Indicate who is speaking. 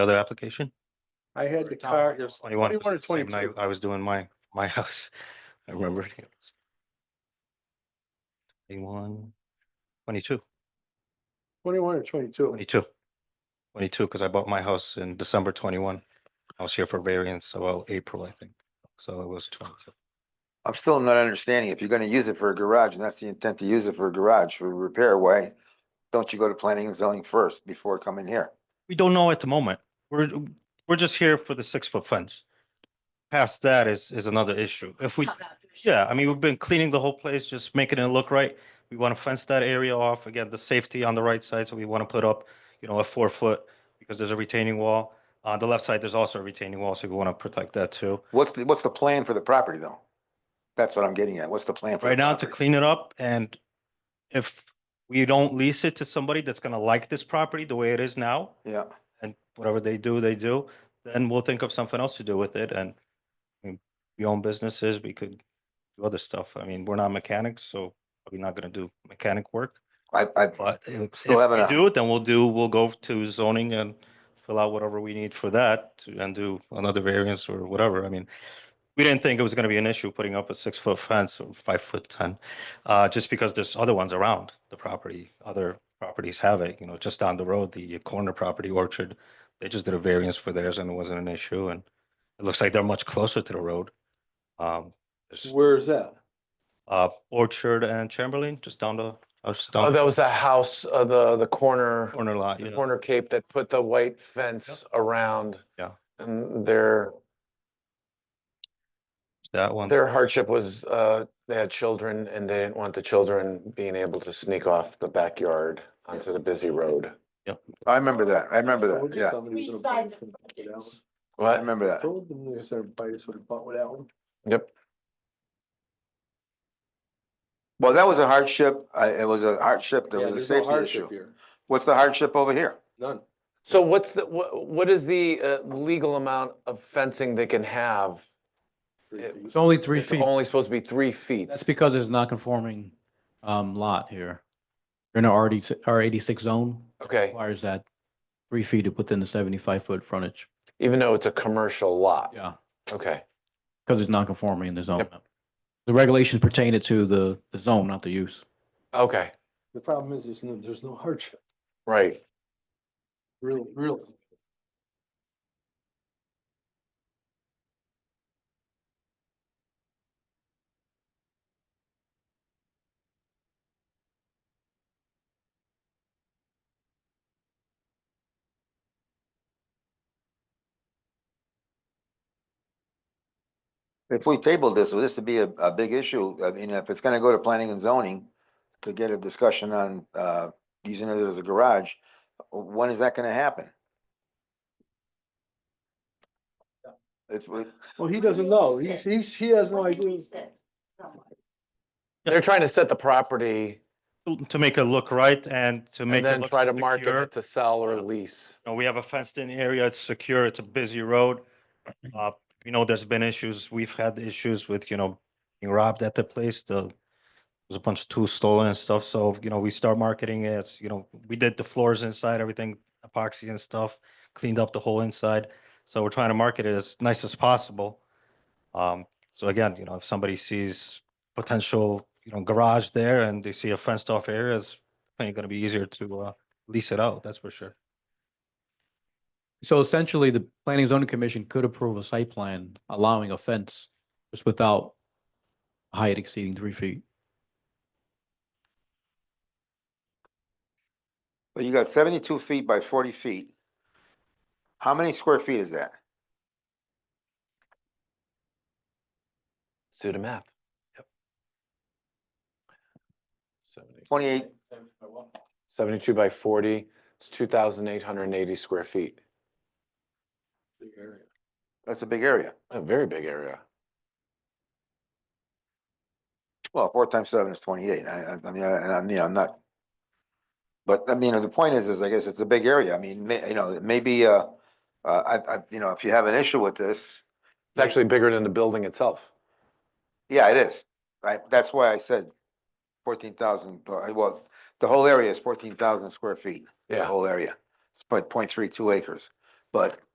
Speaker 1: Other application?
Speaker 2: I had
Speaker 1: Or
Speaker 2: the
Speaker 1: no,
Speaker 2: car, it was
Speaker 1: Twenty-one
Speaker 2: twenty-one or
Speaker 1: was the same night
Speaker 2: twenty-two. Hmm.
Speaker 1: I was doing my, my house. I remember. it. Twenty-one, twenty-two,
Speaker 2: Twenty-one or twenty-two.
Speaker 1: twenty-two. Twenty-two, because I bought my house in December twenty-one. I was here for variance about April, I think. So it was twenty-two.
Speaker 3: I'm still not understanding. If you're gonna use it for a garage, and that's the intent to use it for a garage, for repair, why don't you go to planning and zoning first before coming here?
Speaker 1: We don't know at the moment. We're, we're just here for the six-foot fence. Past that is, is another issue. If we, Yeah, I mean, we've been cleaning the whole place, just making it look right. We want to fence that area off, again, the safety on the right side, so we want to put up, you know, a four foot, because there's a retaining wall. On the left side, there's also a retaining wall, so we want to protect that too.
Speaker 3: What's the, what's the plan for the property though? That's what I'm getting at. What's the plan? for the
Speaker 1: Right now, to
Speaker 3: property?
Speaker 1: clean it up, and if we don't lease it to somebody that's gonna like this property the way it is now,
Speaker 3: Yeah,
Speaker 1: and whatever they do, they do, then we'll think of something else to do with it, and I mean, we own businesses, we could do other stuff. I mean, we're not mechanics, so we're not gonna do mechanic work.
Speaker 3: I, I,
Speaker 1: But if if
Speaker 3: Still haven't
Speaker 1: we
Speaker 3: a-
Speaker 1: do it, then we'll do, we'll go to zoning and fill out whatever we need for that to- and do another variance or whatever. I mean, we didn't think it was gonna be an issue putting up a six foot fence or five foot ten, uh, just because there's other ones around the property. Other properties have it, you know, just down the road, the corner property orchard, they just did a variance for theirs and it wasn't an issue and it looks like they're much closer to the road. Um, there's,
Speaker 2: Where is that?
Speaker 1: uh, Orchard and Chamberlain, just down the, uh, just
Speaker 4: Oh,
Speaker 1: down
Speaker 4: that
Speaker 1: the
Speaker 4: was the house, uh, the, the corner,
Speaker 1: corner lot,
Speaker 4: the
Speaker 1: yeah.
Speaker 4: corner cape that put the white fence around.
Speaker 1: Yeah.
Speaker 4: And their,
Speaker 1: that one.
Speaker 4: their hardship was, uh, they had children and they didn't want the children being able to sneak off the backyard onto the busy road.
Speaker 3: I remember that. I remember
Speaker 2: I told
Speaker 3: that.
Speaker 2: you
Speaker 3: Yeah,
Speaker 2: somebody was
Speaker 5: Three
Speaker 2: gonna bite
Speaker 5: sides
Speaker 2: us
Speaker 5: of
Speaker 2: with that
Speaker 5: frontage.
Speaker 2: one.
Speaker 3: I
Speaker 4: What?
Speaker 3: remember
Speaker 2: I
Speaker 3: that.
Speaker 2: told them they was gonna bite us with a butt with that one.
Speaker 4: Yep.
Speaker 3: Well, that was a hardship. I, it was a hardship. There
Speaker 2: Yeah,
Speaker 3: was a
Speaker 2: there's no
Speaker 3: safety
Speaker 2: hardship
Speaker 3: issue.
Speaker 2: here.
Speaker 3: What's the hardship over here?
Speaker 2: None.
Speaker 4: So what's the, what, what is the, uh, legal amount of fencing they can have?
Speaker 2: Three
Speaker 4: It-
Speaker 2: feet.
Speaker 6: It's only three
Speaker 4: It's
Speaker 6: feet.
Speaker 4: Only supposed to be three feet.
Speaker 6: That's because it's non-conforming um, lot here. You're in a RD, R eighty-six zone,
Speaker 4: Okay,
Speaker 6: requires that three feet within the seventy-five foot frontage.
Speaker 4: even though it's a commercial lot.
Speaker 6: Yeah,
Speaker 4: Okay,
Speaker 6: because it's non-conforming in the zone.
Speaker 4: Yep.
Speaker 6: The regulations pertain it to the, the zone, not the use.
Speaker 4: okay,
Speaker 2: The problem is, there's no, there's no hardship,
Speaker 4: right.
Speaker 2: really, really.
Speaker 3: If we tabled this, well, this would be a, a big issue. I mean, if it's gonna go to planning and zoning to get a discussion on, uh, using it as a garage, when is that gonna happen? If, we-
Speaker 2: Well, he doesn't know.
Speaker 5: Release
Speaker 2: He's,
Speaker 5: it.
Speaker 2: he's, he has no
Speaker 5: When they
Speaker 2: idea.
Speaker 5: lease it somewhere.
Speaker 4: They're trying to set the property
Speaker 1: to- to make it look right and to make
Speaker 4: and
Speaker 1: it
Speaker 4: then
Speaker 1: look
Speaker 4: try to market
Speaker 1: secure.
Speaker 4: it to sell or
Speaker 1: Yeah.
Speaker 4: lease.
Speaker 1: You know, we have a fenced-in area, it's secure, it's a busy road. Uh, you know, there's been issues, we've had issues with, you know, being robbed at the place, the there's a bunch of tools stolen and stuff, so, you know, we start marketing it, it's, you know, we did the floors inside, everything epoxy and stuff, cleaned up the whole inside. So we're trying to market it as nice as possible. Um, so again, you know, if somebody sees potential, you know, garage there and they see a fenced-off area, it's probably gonna be easier to, uh, lease it out, that's for sure.
Speaker 6: So essentially, the Planning and Zoning Commission could approve a site plan allowing a fence just without height exceeding three feet.
Speaker 3: well, you got seventy-two feet by forty feet. How many square feet is that?
Speaker 4: Let's do the math. Yep.
Speaker 3: Twenty-eight,
Speaker 4: Seventy-two by forty, it's two thousand eight hundred and eighty square feet.
Speaker 3: that's a big area.
Speaker 4: A very big area.
Speaker 3: Well, four times seven is twenty-eight. I, I, I mean, I, I mean, I'm not. But I mean, the point is, is I guess it's a big area. I mean, may, you know, maybe, uh, uh, I, I, you know, if you have an issue with this,
Speaker 4: It's actually bigger than the building itself.
Speaker 3: Yeah, it is. I that's why I said fourteen thousand, uh, well, the whole area is fourteen thousand square feet, the
Speaker 4: Yeah,
Speaker 3: whole area. It's point, point three two acres. But